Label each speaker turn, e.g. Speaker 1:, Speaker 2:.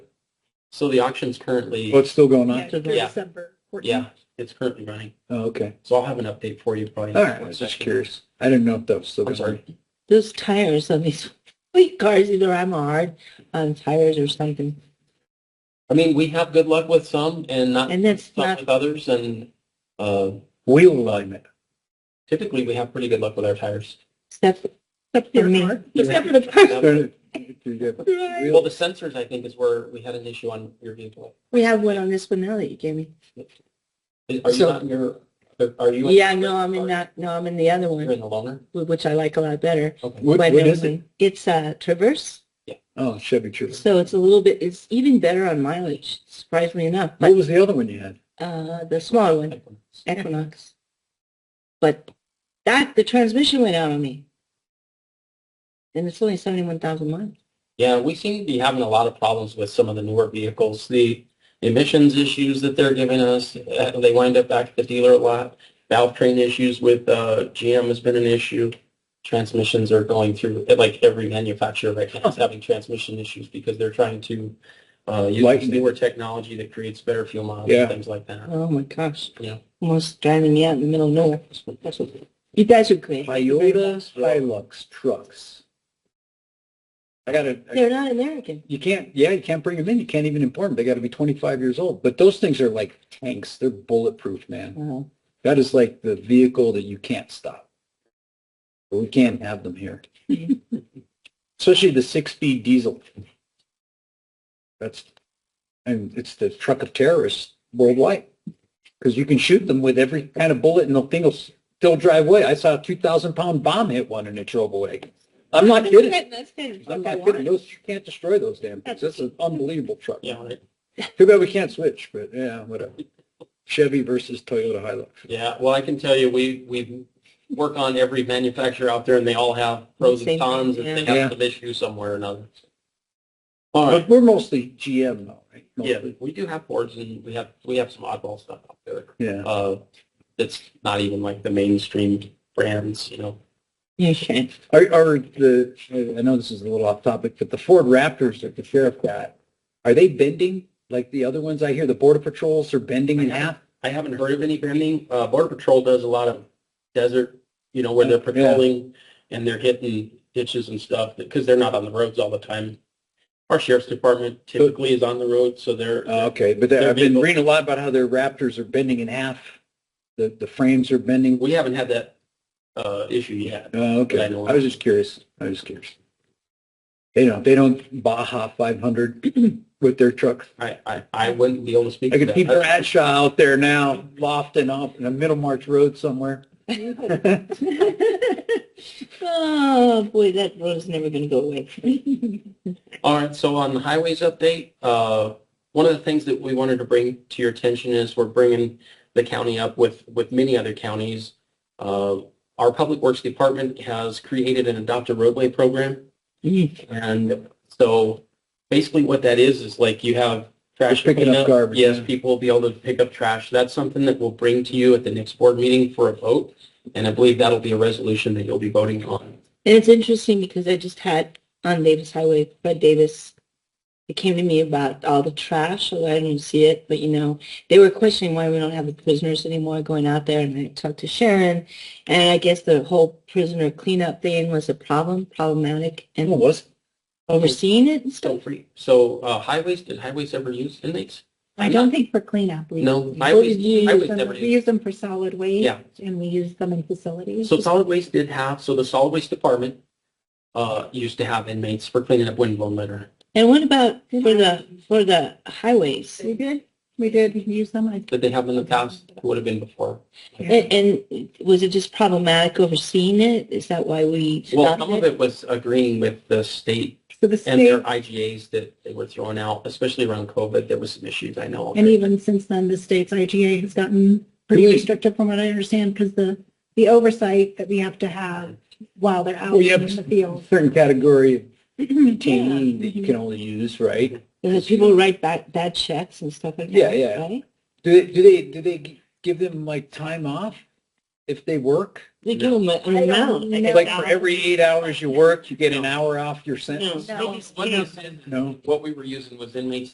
Speaker 1: So the auction's currently,
Speaker 2: Oh, it's still going
Speaker 3: Yeah,
Speaker 2: on?
Speaker 3: through
Speaker 1: Yeah.
Speaker 3: December 14th.
Speaker 1: yeah, it's currently running.
Speaker 2: Oh, okay.
Speaker 1: So I'll have an update for you probably.
Speaker 2: All right, I was just curious. I didn't know if that was still
Speaker 1: I'm
Speaker 2: going on.
Speaker 1: sorry.
Speaker 3: Those tires on these fleet cars, either I'm hard on tires or something.
Speaker 1: I mean, we have good luck with some and not
Speaker 3: And that's
Speaker 1: some
Speaker 3: not,
Speaker 1: with others and, uh,
Speaker 2: Wheel alignment.
Speaker 1: typically we have pretty good luck with our tires.
Speaker 3: except, except for me. Except for the
Speaker 1: Yeah.
Speaker 3: person.
Speaker 2: Started- you get
Speaker 3: Right.
Speaker 1: Well, the sensors, I think, is where we had an issue on your vehicle.
Speaker 3: We have one on this one now that you gave me.
Speaker 1: Is- Are you
Speaker 3: So-
Speaker 1: not in your, are you? in-
Speaker 3: Yeah, no, I'm in that, no, I'm in the other
Speaker 1: You're
Speaker 3: one,
Speaker 1: in the loaner?
Speaker 3: which I like a lot better.
Speaker 1: Okay.
Speaker 2: What,
Speaker 3: But,
Speaker 2: what is it?
Speaker 3: um, It's a Traverse,
Speaker 2: Oh, Chevy Traverse.
Speaker 3: so it's a little bit, it's even better on mileage, surprisingly enough.
Speaker 2: What
Speaker 3: But
Speaker 2: was the other one you had?
Speaker 3: uh, the smaller one, Equinox. But that, the transmission went out on me. And it's only 71,000 miles.
Speaker 1: Yeah, we seem to be having a lot of problems with some of the newer vehicles. The emissions issues that they're giving us, uh, they wind up back at the dealer a lot. Valve train issues with uh, GM has been an issue. Transmissions are going through, eh, like every manufacturer right now is having transmission issues because they're trying to uh, use this
Speaker 2: Lighten it.
Speaker 1: newer technology that creates better fuel mileage
Speaker 2: Yeah.
Speaker 1: and things like that.
Speaker 3: Oh my gosh.
Speaker 1: Yeah.
Speaker 3: Almost driving me out in the middle of nowhere. That's what- You guys are great. Thank you very much.
Speaker 2: Toyotas, Hilux trucks. I gotta, I-
Speaker 3: They're not American.
Speaker 2: you can't, yeah, you can't bring them in. You can't even import them. They gotta be twenty-five years old. But those things are like tanks. They're bulletproof, man.
Speaker 3: Wow.
Speaker 2: That is like the vehicle that you can't stop. But we can't have them here. Especially the six-speed diesel. That's, and it's the truck of terrorists worldwide. Because you can shoot them with every kind of bullet and the thing will still drive away. I saw a 2,000-pound bomb hit one and it drove away. I'm not kidding.
Speaker 3: That's good.
Speaker 2: I'm not kidding. Those, you can't destroy those damn things. That's an unbelievable truck.
Speaker 1: Yeah, right.
Speaker 2: Too bad we can't switch, but yeah, whatever. Chevy versus Toyota Hilux.
Speaker 1: Yeah, well, I can tell you, we, we work on every manufacturer out there and they all have pros
Speaker 3: Same thing,
Speaker 1: and cons and they
Speaker 2: yeah. Yeah.
Speaker 1: have some issue somewhere or another. All right.
Speaker 2: But we're mostly GM though, right?
Speaker 1: Yeah,
Speaker 2: Mostly.
Speaker 1: we do have Fords and we have, we have some oddball stuff out there.
Speaker 2: Yeah.
Speaker 1: Uh, that's not even like the mainstream brands, you know.
Speaker 3: You can.
Speaker 2: Are, are the, I know this is a little off topic, but the Ford Raptors that the sheriff got, are they bending like the other ones? I hear the border patrols are bending in half.
Speaker 1: I haven't heard of any branding. Uh, Border Patrol does a lot of desert, you know, where they're
Speaker 2: Yeah.
Speaker 1: patrolling and they're hitting ditches and stuff because they're not on the roads all the time. Our sheriff's department typically is on the road, so they're,
Speaker 2: Oh, Okay, but there- I've been reading a lot about how their Raptors are bending in half. The, the frames are bending.
Speaker 1: we haven't had that, uh, issue yet.
Speaker 2: Oh, okay. I was just curious. I was just curious. They don't, they don't Baja 500 with their trucks.
Speaker 1: I, I, I wouldn't be able to speak
Speaker 2: I
Speaker 1: to
Speaker 2: could see
Speaker 1: that.
Speaker 2: Bradshaw out there now, lofting off in a Middlemarch Road somewhere.
Speaker 3: Oh, boy, that road is never going to go away.
Speaker 1: All right, so on the highways update, uh, one of the things that we wanted to bring to your attention is we're bringing the county up with, with many other counties. Uh, Our Public Works Department has created an adopt a roadway program. And so basically what that is, is like you have trash
Speaker 2: Just picking up
Speaker 1: cleanup.
Speaker 2: garbage,
Speaker 1: Yes,
Speaker 2: yeah.
Speaker 1: people will be able to pick up trash. That's something that we'll bring to you at the next board meeting for a vote. And I believe that'll be a resolution that you'll be voting on.
Speaker 3: And it's interesting because I just had on Davis Highway, Fred Davis, it came to me about all the trash, although I didn't see it, but you know, they were questioning why we don't have the prisoners anymore going out there, and I talked to Sharon, and I guess the whole prisoner cleanup thing was a problem, problematic,
Speaker 2: It
Speaker 3: and
Speaker 2: was
Speaker 3: overseeing it and
Speaker 1: So
Speaker 3: stuff.
Speaker 1: free. So uh, highways, did highways ever use inmates?
Speaker 4: I don't think for cleanup. we-
Speaker 1: No,
Speaker 4: we
Speaker 1: highways,
Speaker 4: use
Speaker 1: highways
Speaker 4: them-
Speaker 1: never
Speaker 4: We
Speaker 1: used.
Speaker 4: use them for solid waste
Speaker 1: Yeah,
Speaker 4: and we use them in facilities.
Speaker 1: so solid waste did have, so the solid waste department uh, used to have inmates for cleaning up windblown litter.
Speaker 3: And what about for the, for the highways?
Speaker 4: We did, we did use them. I-
Speaker 1: Did they have in the past? It would have been before.
Speaker 3: And, and was it just problematic overseeing it? Is that why we
Speaker 1: Well, some
Speaker 3: stopped
Speaker 1: of
Speaker 3: it?
Speaker 1: it was agreeing with the state
Speaker 4: So the
Speaker 1: and their
Speaker 4: state,
Speaker 1: IGAs that they were throwing out, especially around COVID. There was some issues, I know.
Speaker 4: and even since then, the state's IGA has gotten pretty
Speaker 2: Really?
Speaker 4: restrictive from what I understand because the, the oversight that we have to have while they're out
Speaker 2: Well, you
Speaker 4: in
Speaker 2: have
Speaker 4: the
Speaker 2: a
Speaker 4: field. Mhm.
Speaker 2: certain category of detainee that you
Speaker 4: Yeah.
Speaker 2: can only use, right?
Speaker 3: Because people write back bad checks and stuff like that,
Speaker 2: Yeah, yeah.
Speaker 3: right?
Speaker 2: Do they, do they, do they g- give them like time off if they work?
Speaker 3: They give
Speaker 1: No.
Speaker 3: them an
Speaker 4: I don't
Speaker 3: amount.
Speaker 4: know.
Speaker 2: Like for every eight hours you work, you get an hour off your
Speaker 3: No,
Speaker 2: sentence?
Speaker 3: they just
Speaker 1: What
Speaker 3: can't.
Speaker 1: they did-
Speaker 2: No.
Speaker 1: What we were using was inmates